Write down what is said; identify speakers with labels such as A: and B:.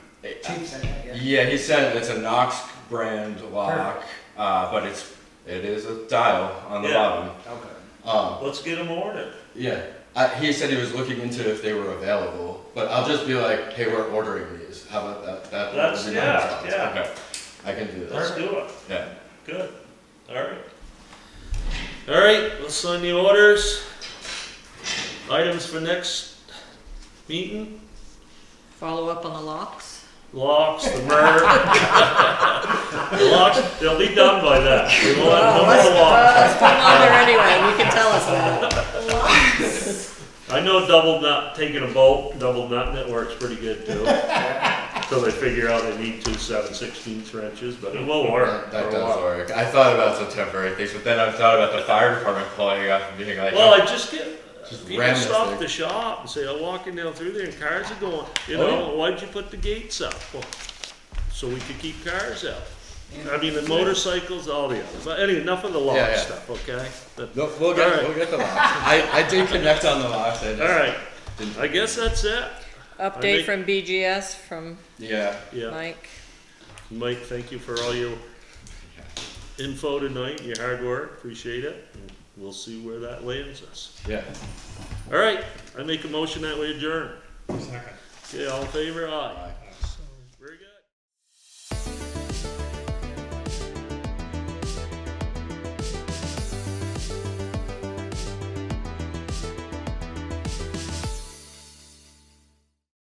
A: cheap, isn't it? Yeah.
B: Yeah, he said it's a Knox brand lock, uh, but it's it is a dial on the
C: Yeah.
B: bottom.
A: Okay.
B: Um,
C: Let's get them ordered.
B: yeah, I, he said he was looking into if they were available, but I'll just be like, hey, we're ordering these. How about that? that
C: That's-
B: would be my
C: yeah,
B: response.
C: yeah.
B: Okay, I can do this.
C: Let's do it.
B: Yeah.
C: Good. All right. All right, let's sign the orders. Items for next meeting,
D: Follow up on the locks?
C: locks, the merge. The locks, they'll be done by that. We will have no more locks.
D: Uh, It's been on there anyway, you can tell us that.
C: I know double nut, taking a bolt, double nut, it works pretty good too. Until they figure out they need two seven sixteenths wrenches, but it will work
B: That, that
C: for a
B: does
C: while.
B: work. I thought about some temporary things, but then I thought about the fire department calling up and being like,
C: Well, I just get,
B: Just
C: people
B: ram this
C: stop
B: thing.
C: at the shop and say, I'm walking down through there and cars are going, you
B: Oh,
C: know, why'd you put the gates up? Well, So we could keep cars out. I mean, the motorcycles, all the other, but anyway, enough of the
B: Yeah,
C: law
B: yeah.
C: stuff, okay? But-
B: no, we'll get
C: All right.
B: we'll get the locks. I, I did connect on the locks. I just,
C: All right,
B: didn't-
C: I guess that's it,
D: Update from BGS from
B: Yeah.
C: yeah.
D: Mike.
C: Mike, thank you for all your info tonight, your hard work, appreciate it. and We'll see where that lands us.
B: Yeah.
C: All right, I make a motion that we adjourn. Okay, all in favor, aye.
B: Aye.